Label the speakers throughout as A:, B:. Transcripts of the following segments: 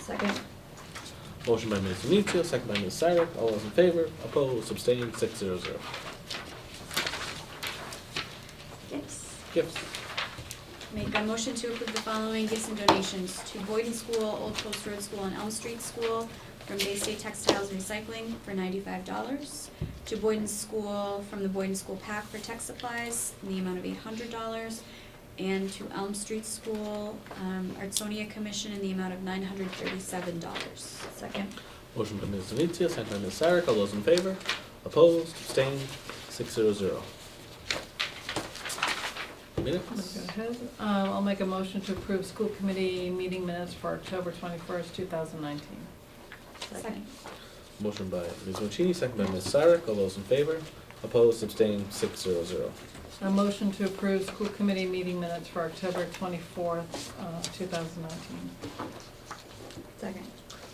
A: Second.
B: Motion by Ms. Denizio, second by Ms. Syrek. All those in favor? Opposed? Abstained? Six zero zero.
A: Gifts.
B: Gifts.
C: Make a motion to approve the following gifts and donations to Boyden School, Old Post Road School, and Elm Street School from Bay State Textiles and Recycling for ninety-five dollars. To Boyden School, from the Boyden School Pack for tech supplies, in the amount of eight hundred dollars. And to Elm Street School, um, Artsonia Commission in the amount of nine hundred thirty-seven dollars.
A: Second.
B: Motion by Ms. Denizio, second by Ms. Syrek. All those in favor? Opposed? Abstained? Six zero zero. Minutes?
D: Go ahead. Uh, I'll make a motion to approve school committee meeting minutes for October twenty-first, two thousand nineteen.
A: Second.
B: Motion by Ms. Mancini, second by Ms. Syrek. All those in favor? Opposed? Abstained? Six zero zero.
D: A motion to approve school committee meeting minutes for October twenty-fourth, uh, two thousand nineteen.
A: Second.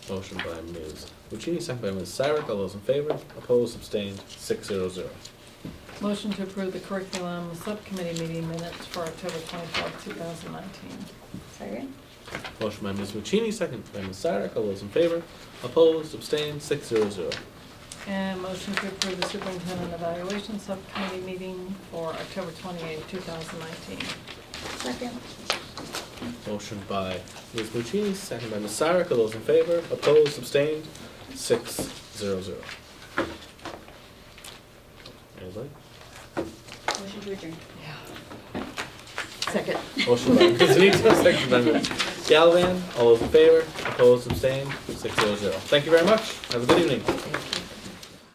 B: Motion by Ms. Mancini, second by Ms. Syrek. All those in favor? Opposed? Abstained? Six zero zero.
D: Motion to approve the curriculum subcommittee meeting minutes for October twenty-fourth, two thousand nineteen.
A: Second.
B: Motion by Ms. Mancini, second by Ms. Syrek. All those in favor? Opposed? Abstained? Six zero zero.
D: And motion to approve the superintendent evaluation subcommittee meeting for October twenty-eighth, two thousand nineteen.
A: Second.
B: Motion by Ms. Buccini, second by Ms. Syrek. All those in favor? Opposed? Abstained? Six zero zero. Anybody?
C: Motion to adjourn.
D: Second.
B: Motion by Ms. Nito, second by Ms. Galvin. All those in favor? Opposed? Abstained? Six zero zero. Thank you very much. Have a good evening.
D: Thank